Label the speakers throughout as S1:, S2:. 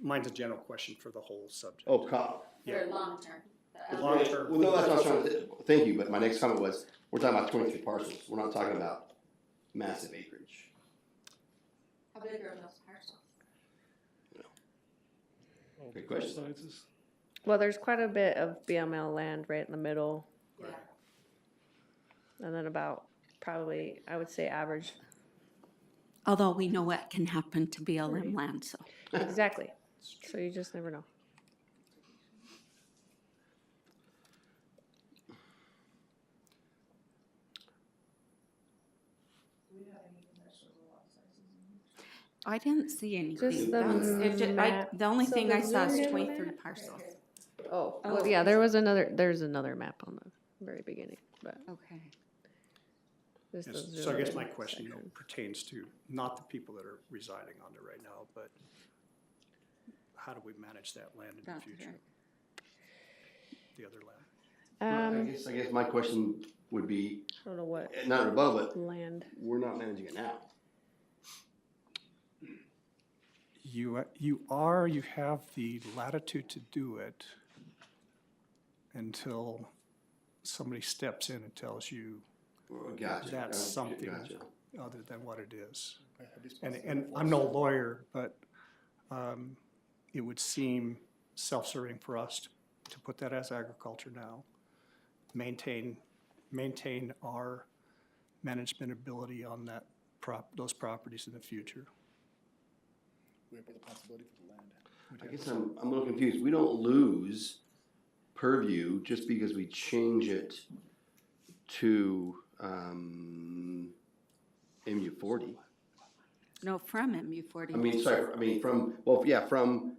S1: mine's a general question for the whole subject.
S2: Oh, co-
S1: Yeah.
S3: for long term.
S1: The
S3: Uh,
S1: long term.
S2: Well, no, that's what I was trying to, thank you, but my next comment was, we're talking about twenty-three parcels, we're not talking about massive acreage.
S3: How big are those parcels?
S2: Good question.
S4: Well, there's quite a bit of BML land right in the middle,
S3: Yeah,
S4: and then about probably, I would say, average.
S5: Although we know what can happen to BLM land, so.
S4: Exactly. So you just never know.
S5: I didn't see anything.
S4: Just the
S5: That was- it ju- I-
S4: map.
S5: The only
S4: So
S5: thing
S4: the
S5: I saw is
S4: zoom in
S5: twenty-three
S4: map?
S5: parcels.
S4: Oh,
S5: Oh,
S4: well, yeah, there was another, there's another map on the very beginning, but
S5: Okay.
S4: just
S1: Yes,
S4: the
S1: So I guess
S4: zoomed
S1: my
S4: in
S1: question you know,
S4: section.
S1: pertains to not the people that are residing on it right now, but how do we manage that land in the
S5: That's
S1: future,
S5: right.
S1: the other land? uh,
S2: I
S4: Um,
S2: guess, I guess my question would be,
S4: I don't know what
S2: not above, but
S4: land.
S2: we're not managing it now.
S1: You, a- you are, you have the latitude to do it until somebody steps in and tells you
S2: Gotcha.
S1: That's
S2: Uh,
S1: something.
S2: gotcha.
S1: other than what it is. And, and I'm no lawyer, but um, it would seem self-serving for us to- to put that as agriculture now. Maintain, maintain our management ability on that prop, those properties in the future.
S6: We have the possibility for the land.
S2: I guess I'm, I'm a little confused. We don't lose purview just because we change it to, um, MU forty.
S5: No, from MU forty.
S2: I mean, sorry, I mean, from, well, yeah, from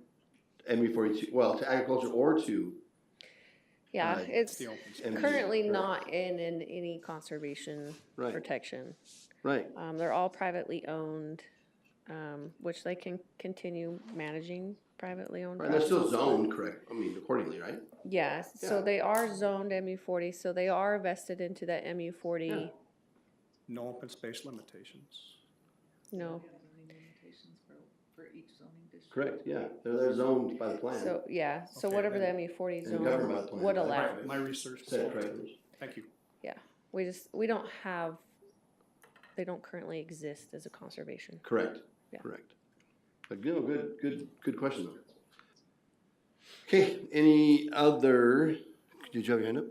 S2: MU forty-two, well, to agriculture or to
S4: Yeah,
S2: Right,
S4: it's
S1: Uh, The open space.
S2: MU.
S4: currently
S2: Right,
S4: not in, in any conservation
S2: Right,
S4: protection.
S2: right.
S4: Um, they're all privately owned, um, which they can continue managing privately owned.
S2: Right, they're still
S4: properties.
S2: zoned, correct, I mean, accordingly, right?
S4: Yes, so
S2: Yeah.
S4: they are zoned MU forty, so they are vested into that MU forty,
S1: No open space limitations.
S4: no,
S2: Correct, yeah, they're, they're zoned by the plan.
S4: so, yeah, so
S1: Okay,
S4: whatever the
S1: then-
S4: MU forty
S2: And
S4: zone
S2: governed by the plan,
S4: would
S2: right?
S4: allow.
S1: My research was
S2: Said
S1: all-
S2: correctly.
S1: Thank you.
S4: We just, we don't have, they don't currently exist as a conservation.
S2: Correct,
S4: Yeah.
S2: correct. But no, good, good, good question though. Okay, any other, did you have your hand up?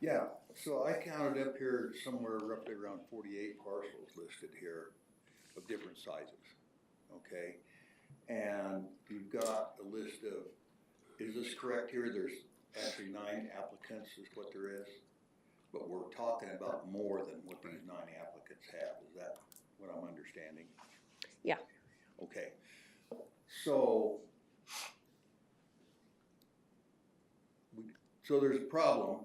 S6: Yeah, so I counted up here somewhere roughly around forty-eight parcels listed here of different sizes, okay? And you've got a list of, is this correct here? There's actually nine applicants is what there is. But we're talking about more than what these nine applicants have. Is that what I'm understanding?
S4: Yeah.
S6: Okay. So we- so there's a problem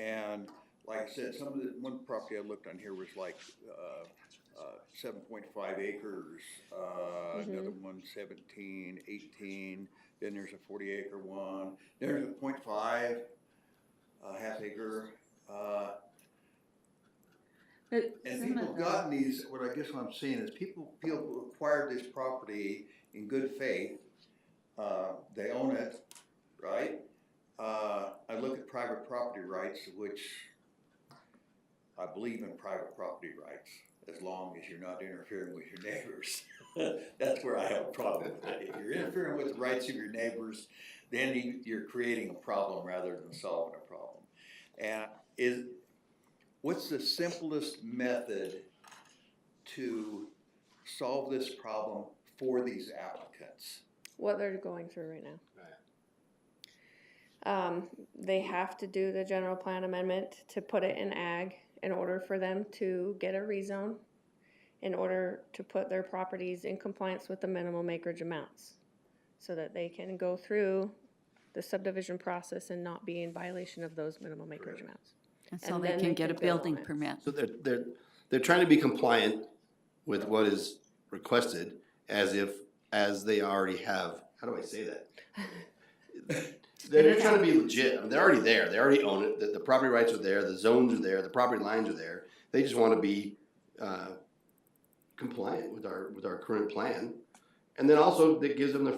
S6: and like I said, some of the, one property I looked on here was like, uh, uh, seven point five acres, uh,
S4: Mhm.
S6: another one 17, 18. then there's a forty acre one, there's a point five, uh, half acre, uh, and people have gotten these, what I guess what I'm seeing is people, people acquired this property in good faith. Uh, they own it, right? Uh, I look at private property rights, which I believe in private property rights, as long as you're not interfering with your neighbors. That's where I have a problem with it. If you're interfering with the rights of your neighbors, then you, you're creating a problem rather than solving a problem. And is, What's the simplest method to solve this problem for these applicants?
S4: what they're going through right now.
S2: Right.
S4: Um, they have to do the general plan amendment to put it in ag in order for them to get a rezone, in order to put their properties in compliance with the minimum acreage amounts, so that they can go through the subdivision process and not be in violation of those minimum acreage amounts.
S5: And so
S4: and
S5: they
S4: then
S5: can
S4: they
S5: get a
S4: can build
S5: building
S4: on it.
S5: permit.
S2: So they're, they're, they're trying to be compliant with what is requested as if, as they already have, how do I say that? They're they're trying to be legit, I mean, they're already there, they already own it, the, the property rights are there, the zones are there, the property lines are there. They just wanna be, uh, compliant with our, with our current plan. And then also, that gives them the